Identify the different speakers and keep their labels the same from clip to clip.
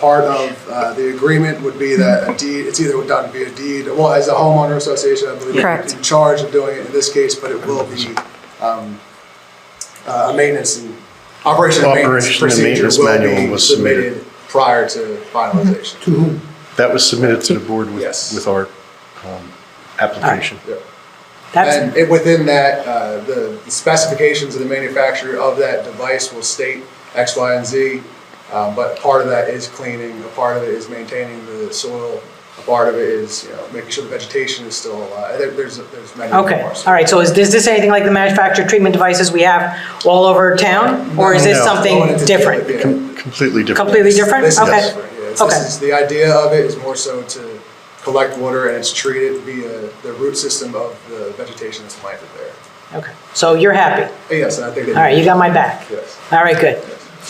Speaker 1: part of uh, the agreement would be that a deed, it's either done via deed, well, as a homeowner association, I believe,
Speaker 2: Correct.
Speaker 1: in charge of doing it in this case, but it will be um, uh, a maintenance and, operation and maintenance
Speaker 3: Operation and
Speaker 1: procedure
Speaker 3: maintenance
Speaker 1: will
Speaker 3: manual
Speaker 1: be
Speaker 3: was submitted.
Speaker 1: submitted prior to finalization.
Speaker 3: That was submitted to the board with,
Speaker 1: Yes.
Speaker 3: with our um, application.
Speaker 1: Yep.
Speaker 2: That's,
Speaker 1: And it- within that, uh, the the specifications of the manufacturer of that device will state X, Y, and Z. um, But part of that is cleaning, a part of it is maintaining the soil, a part of it is, you know, making sure the vegetation is still alive. There- There's, there's many more.
Speaker 2: okay, all right, so is this, this anything like the manufactured treatment devices we have all over town? Or is this
Speaker 3: No.
Speaker 1: Going
Speaker 2: something
Speaker 1: into
Speaker 2: different?
Speaker 1: detail, yeah.
Speaker 3: Com- Completely different.
Speaker 2: Completely different?
Speaker 1: This is
Speaker 2: Okay.
Speaker 1: different, yeah. It's-
Speaker 2: Okay.
Speaker 1: This is, the idea of it is more so to collect water and it's treated via the root system of the vegetation that's planted there.
Speaker 2: Okay, so you're happy?
Speaker 1: But Yes, and I think.
Speaker 2: All right, you got my back?
Speaker 1: Yes.
Speaker 2: All right, good.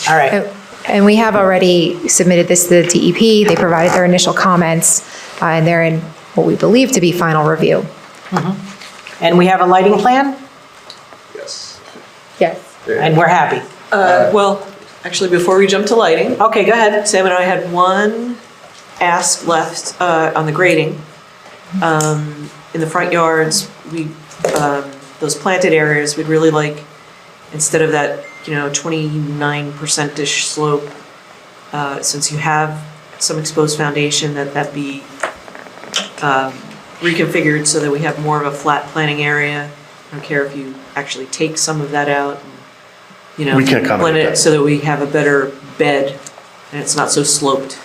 Speaker 2: All right,
Speaker 4: Uh, And we have already submitted this to the DEP. They provided their initial comments, uh, and they're in what we believe to be final review.
Speaker 2: and we have a lighting plan,
Speaker 1: Yes.
Speaker 4: Yes.
Speaker 2: and we're happy.
Speaker 5: Uh, Well, actually, before we jump to lighting,
Speaker 2: Okay, go ahead.
Speaker 5: Sam and I had one ask left uh, on the grading. Um, In the front yards, we, um, those planted areas, we'd really like, instead of that, you know, 29%-ish slope, uh, since you have some exposed foundation, that that be um, reconfigured so that we have more of a flat planting area. I don't care if you actually take some of that out, and, you know.
Speaker 3: We can accommodate
Speaker 5: blend it
Speaker 3: that.
Speaker 5: So that we have a better bed and it's not so sloped.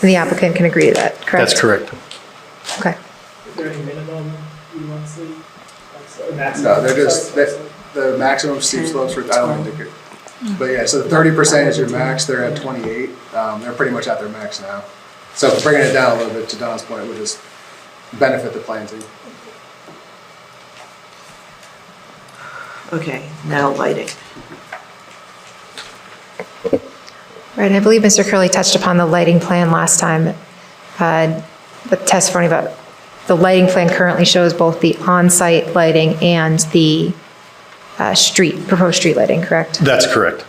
Speaker 4: The applicant can agree to that, correct?
Speaker 3: That's correct.
Speaker 4: Okay.
Speaker 6: Is there any minimum you want to see? Or maximum?
Speaker 1: No, they're just,
Speaker 6: Sorry,
Speaker 1: that, the maximum steep slopes for, I don't think they're, but yeah, so thirty percent is your max, they're at twenty-eight, um, they're pretty much at their max now. So bringing it down a little bit, to Don's point, would just benefit the planting.
Speaker 5: Okay, now lighting.
Speaker 4: Right, and I believe Mr. Curley touched upon the lighting plan last time, uh, with testimony about the lighting plan currently shows both the on-site lighting and the uh, street, proposed street lighting, correct?
Speaker 3: That's correct.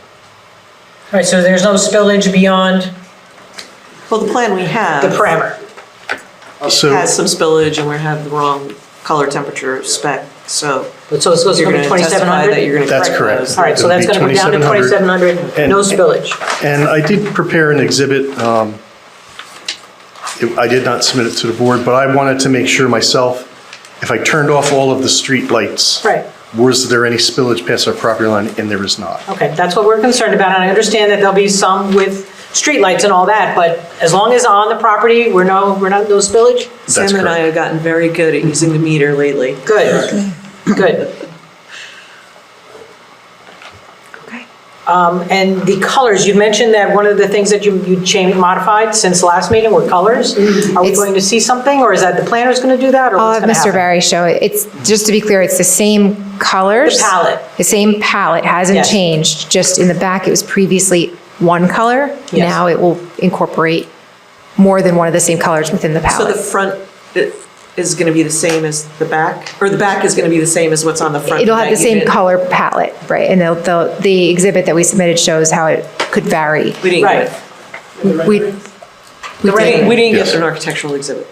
Speaker 2: All right, so there's no spillage beyond
Speaker 5: Well, the plan we have.
Speaker 2: the parameter?
Speaker 3: So,
Speaker 5: Has some spillage and we have the wrong color temperature spec, so.
Speaker 2: So it's supposed to
Speaker 5: you're
Speaker 2: go to
Speaker 5: gonna testify that you're
Speaker 2: 2,700?
Speaker 5: gonna
Speaker 3: That's
Speaker 5: correct
Speaker 3: correct.
Speaker 5: those.
Speaker 2: All right, so that's going to go down to
Speaker 3: 2,700.
Speaker 2: 2,700, no spillage.
Speaker 3: and I did prepare an exhibit. um, it- I did not submit it to the board, but I wanted to make sure myself, if I turned off all of the street lights.
Speaker 2: Right.
Speaker 3: Was there any spillage past our property line? And there is not.
Speaker 2: Okay, that's what we're concerned about, and I understand that there'll be some with streetlights and all that, but as long as on the property, we're no, we're not, no spillage?
Speaker 3: That's
Speaker 5: Sam and I
Speaker 3: correct.
Speaker 5: have gotten very good at using the meter lately.
Speaker 2: Good, good.
Speaker 4: Okay.
Speaker 2: Um, And the colors, you mentioned that one of the things that you, you changed, modified since last meeting were colors. Are we
Speaker 4: It's-
Speaker 2: going to see something, or is that the planner's going to do that, or
Speaker 4: I'll
Speaker 2: what's
Speaker 4: have
Speaker 2: going to
Speaker 4: Mr.
Speaker 2: happen?
Speaker 4: Uh, Barry show it. It's, just to be clear, it's the same colors.
Speaker 2: The palette.
Speaker 4: The same palette, hasn't
Speaker 2: Yes.
Speaker 4: changed, just in the back, it was previously one color.
Speaker 2: Yes.
Speaker 4: Now it will incorporate more than one of the same colors within the
Speaker 5: So the
Speaker 4: palette.
Speaker 5: front i- is gonna be the same as the back, or the back is gonna be the same as what's on the front?
Speaker 4: It'll have the
Speaker 5: that you
Speaker 4: same
Speaker 5: did-
Speaker 4: color palette, right? And they'll- they'll- the exhibit that we submitted shows how it could vary.
Speaker 5: We didn't
Speaker 2: Right.
Speaker 5: get it.
Speaker 4: We, we
Speaker 5: We didn't- We
Speaker 4: did,
Speaker 5: didn't get
Speaker 3: Yes.
Speaker 5: an architectural exhibit.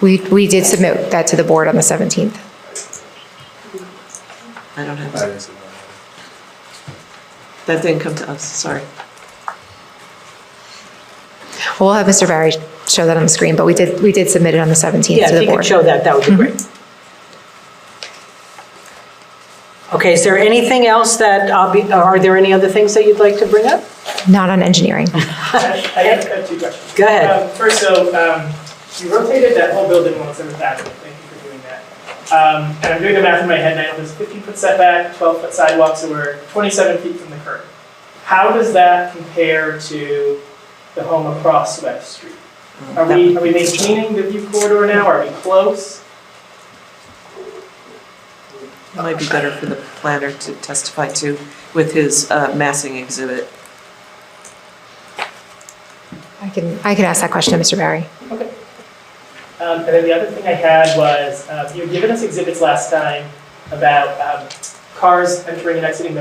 Speaker 4: we we did submit that to the board on the 17th.
Speaker 5: I don't have,
Speaker 1: That
Speaker 5: that
Speaker 1: is, uh,
Speaker 5: That didn't come to us, sorry.
Speaker 4: We'll have Mr. Barry show that on the screen, but we did, we did submit it on the 17th
Speaker 2: Yeah,
Speaker 4: to
Speaker 2: if
Speaker 4: the
Speaker 2: you could
Speaker 4: board.
Speaker 2: show that, that would be
Speaker 4: Mm-hmm.
Speaker 2: great. Okay, is there anything else that, I'll be- are there any other things that you'd like to bring up?
Speaker 4: Not on engineering.
Speaker 6: I I have I have two questions.
Speaker 2: Go ahead.
Speaker 6: Um, First, so um, you rotated that whole building once in the past. Thank you for doing that. Um, And I'm doing the math in my head now. There's 15-foot setback, 12-foot sidewalk, so we're 27 feet from the curb. How does that compare to the home across West Street? Are we, are we maintaining the view corridor now? Are we close?
Speaker 5: It might be better for the planner to testify to with his uh, massing exhibit.
Speaker 4: I can, I can ask that question to Mr. Barry.
Speaker 6: Um, and then the other thing I had was, uh, you had given us exhibits last time about, um, cars entering and exiting the